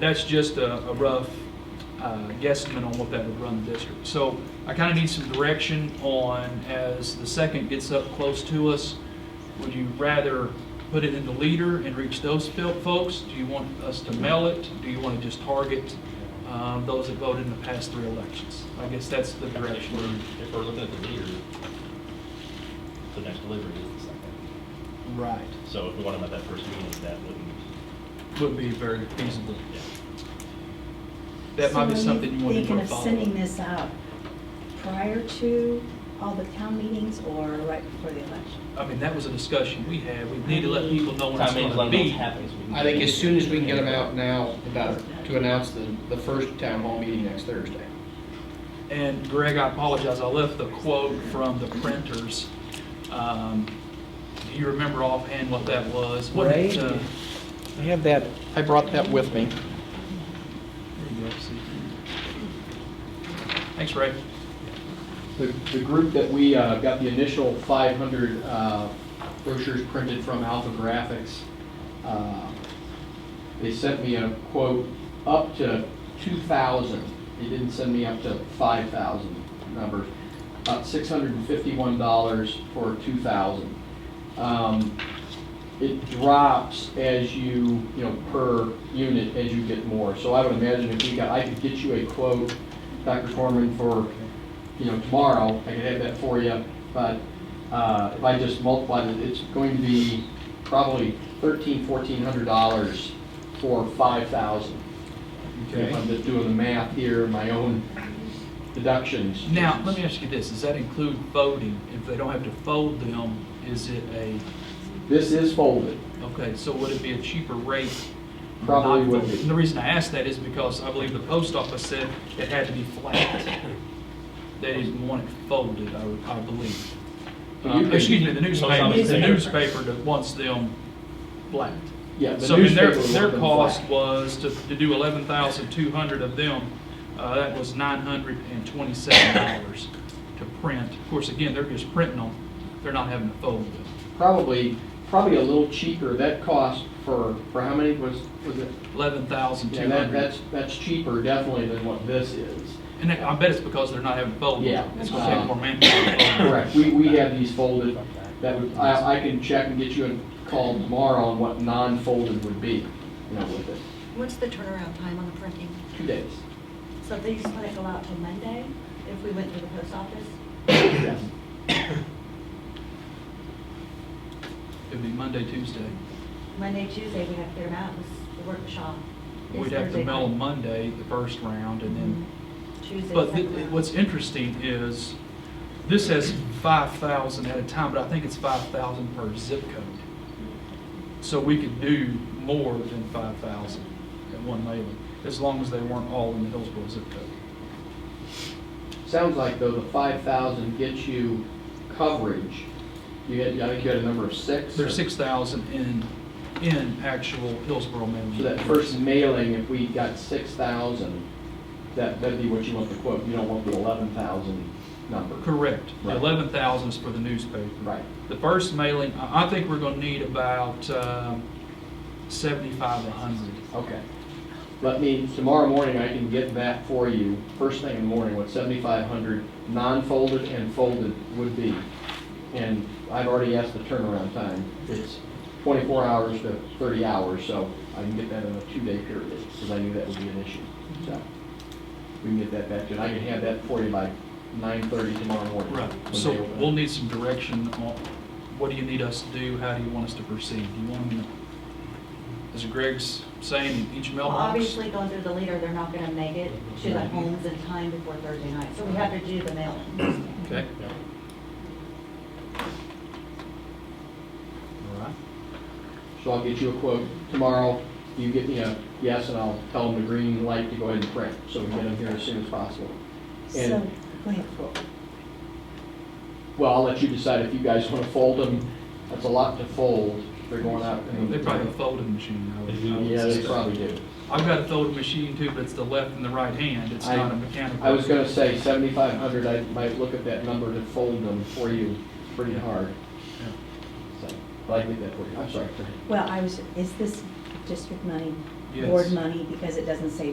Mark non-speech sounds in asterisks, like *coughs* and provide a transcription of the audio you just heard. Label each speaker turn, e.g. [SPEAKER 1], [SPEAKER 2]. [SPEAKER 1] That's just a a rough uh, guesstimate on what that would run the district. So I kind of need some direction on, as the second gets up close to us, would you rather put it in the leader and reach those fil- folks? Do you want us to mail it? Do you want to just target um, those that voted in the past three elections? I guess that's the
[SPEAKER 2] If
[SPEAKER 1] direction.
[SPEAKER 2] we're, if we're looking at the meter, the next delivery is the second.
[SPEAKER 1] Right.
[SPEAKER 2] So if we want them at that first meeting, that wouldn't,
[SPEAKER 1] Would be very feasible.
[SPEAKER 2] yeah.
[SPEAKER 1] That might be
[SPEAKER 3] So are
[SPEAKER 1] something you want to
[SPEAKER 3] Thinking
[SPEAKER 1] work
[SPEAKER 3] of
[SPEAKER 1] on.
[SPEAKER 3] sending this out prior to all the town meetings or right before the election?
[SPEAKER 1] I mean, that was a discussion we had. We need to let people know when it's
[SPEAKER 2] Time means
[SPEAKER 1] going to
[SPEAKER 2] let them
[SPEAKER 1] be.
[SPEAKER 2] happen, so we can-
[SPEAKER 4] I think as soon as we can get them out now, the better, to announce the, the first town hall meeting next Thursday.
[SPEAKER 1] And Greg, I apologize, I left the quote from the printers. Um, Do you remember offhand what that was? What it,
[SPEAKER 4] Ray?
[SPEAKER 1] uh,
[SPEAKER 4] I have that, I brought that with me.
[SPEAKER 1] there you go, see. Thanks, Ray.
[SPEAKER 4] The, the group that we uh, got the initial 500 uh, brochures printed from Alpha Graphics, uh, they sent me a quote up to 2,000. They didn't send me up to 5,000 numbers. About $651 for 2,000. Um, It drops as you, you know, per unit as you get more. So I would imagine if we got, I could get you a quote, Dr. Corman, for you know, tomorrow, I could have that for you, but uh, if I just multiply it, it's going to be probably thirteen, fourteen hundred dollars for five thousand. If I'm just doing the math here, my own deductions.
[SPEAKER 1] Now, let me ask you this, does that include voting? If they don't have to fold them, is it a,
[SPEAKER 4] This is folded,
[SPEAKER 1] okay, so would it be a cheaper rate?
[SPEAKER 4] Probably
[SPEAKER 1] not
[SPEAKER 4] would
[SPEAKER 1] folded?
[SPEAKER 4] be.
[SPEAKER 1] And The reason I asked that is because I believe the post office said it had to be flat. They didn't want it folded, I I believe.
[SPEAKER 4] So you
[SPEAKER 1] Uh,
[SPEAKER 4] could-
[SPEAKER 1] Excuse me, the
[SPEAKER 2] Well,
[SPEAKER 1] newspaper,
[SPEAKER 2] some
[SPEAKER 1] it's the
[SPEAKER 2] newspaper.
[SPEAKER 1] newspaper that wants them blacked.
[SPEAKER 4] yeah. the
[SPEAKER 1] So I mean, their,
[SPEAKER 4] newspaper
[SPEAKER 1] their
[SPEAKER 4] would have been
[SPEAKER 1] cost
[SPEAKER 4] flat.
[SPEAKER 1] was to, to do eleven thousand two hundred of them, uh, that was nine hundred and twenty-seven dollars to print. Of course, again, they're just printing them, they're not having to fold them.
[SPEAKER 4] Probably, probably a little cheaper, that cost for, for how many was, was it?
[SPEAKER 1] Eleven thousand
[SPEAKER 4] Yeah,
[SPEAKER 1] two
[SPEAKER 4] that,
[SPEAKER 1] hundred.
[SPEAKER 4] that's, that's cheaper definitely than what this
[SPEAKER 1] *coughs*
[SPEAKER 4] is.
[SPEAKER 1] And I bet it's because they're not having to fold them.
[SPEAKER 4] Yeah.
[SPEAKER 1] It's gonna take more manpower. to fold them.
[SPEAKER 4] Correct, we, we have these folded, that would, I, I can check and get you a call tomorrow on what non-folded would be, you know, with it,
[SPEAKER 5] What's the turnaround time on the printing?
[SPEAKER 4] two days.
[SPEAKER 3] So these wouldn't go out till Monday if we went to the post office?
[SPEAKER 4] Yes.
[SPEAKER 1] It'd be Monday, Tuesday.
[SPEAKER 3] Monday, Tuesday, we have to get them out, it's the workshop. is
[SPEAKER 1] We'd have to
[SPEAKER 3] Thursday
[SPEAKER 1] mail them
[SPEAKER 3] night. Mm-hmm.
[SPEAKER 1] Monday, the first round, and then
[SPEAKER 3] Tuesday.
[SPEAKER 1] But th-
[SPEAKER 3] second round.
[SPEAKER 1] what's interesting is, this has five thousand at a time, but I think it's five thousand per zip code. So we could do more than five thousand at one mailing, as long as they weren't all in the Hillsborough zip code.
[SPEAKER 4] Sounds like though the five thousand gets you coverage, you had, I think you had a number of six?
[SPEAKER 1] There's six thousand in, in actual Hillsborough mailing.
[SPEAKER 4] So that first mailing, if we got six thousand, that, that'd be what you want the quote, you don't want the eleven thousand number.
[SPEAKER 1] Correct.
[SPEAKER 4] Right.
[SPEAKER 1] Eleven thousand is for the newspaper.
[SPEAKER 4] Right,
[SPEAKER 1] The first mailing, I, I think we're gonna need about, um, seventy-five, a hundred.
[SPEAKER 4] okay. Let me, tomorrow morning, I can get that for you, first thing in the morning, what 7,500 non-folded and folded would be. And I've already asked the turnaround time, it's 24 hours to 30 hours, so I can get that in a two-day period, because I knew that would be an issue, so. We can get that back to, you. I can have that for you by 9:30 tomorrow morning.
[SPEAKER 1] Right,
[SPEAKER 4] when
[SPEAKER 1] so
[SPEAKER 4] they open.
[SPEAKER 1] we'll need some direction on, what do you need us to do, how do you want us to proceed? Do you want them to, as Greg's saying, in each
[SPEAKER 3] Well,
[SPEAKER 1] mailbox?
[SPEAKER 3] Obviously, going through the leader, they're not gonna make it to the homes in time before Thursday night, so we have to do the mailing.
[SPEAKER 1] Okay,
[SPEAKER 2] Yeah.
[SPEAKER 1] all right.
[SPEAKER 4] So I'll get you a quote tomorrow, you get me a yes, and I'll tell them the green light to go ahead and print, so we can get them here as soon as possible.
[SPEAKER 3] So,
[SPEAKER 4] And,
[SPEAKER 3] go ahead.
[SPEAKER 4] well, I'll let you decide if you guys want to fold them, that's a lot to fold, they're going out. in the-
[SPEAKER 1] They probably have a folding machine, I would- I would
[SPEAKER 4] Yeah, they
[SPEAKER 1] suspect.
[SPEAKER 4] probably do.
[SPEAKER 1] I've got a folding machine too, but it's the left and the right hand, it's
[SPEAKER 4] I-
[SPEAKER 1] not a mechanical.
[SPEAKER 4] I was gonna say seventy-five hundred, I might look at that number to fold them for you pretty hard,
[SPEAKER 1] Yeah.
[SPEAKER 4] so, but I did that for you, I'm sorry.
[SPEAKER 3] Well, I was, is this district money
[SPEAKER 1] Yes.
[SPEAKER 3] board money because it doesn't say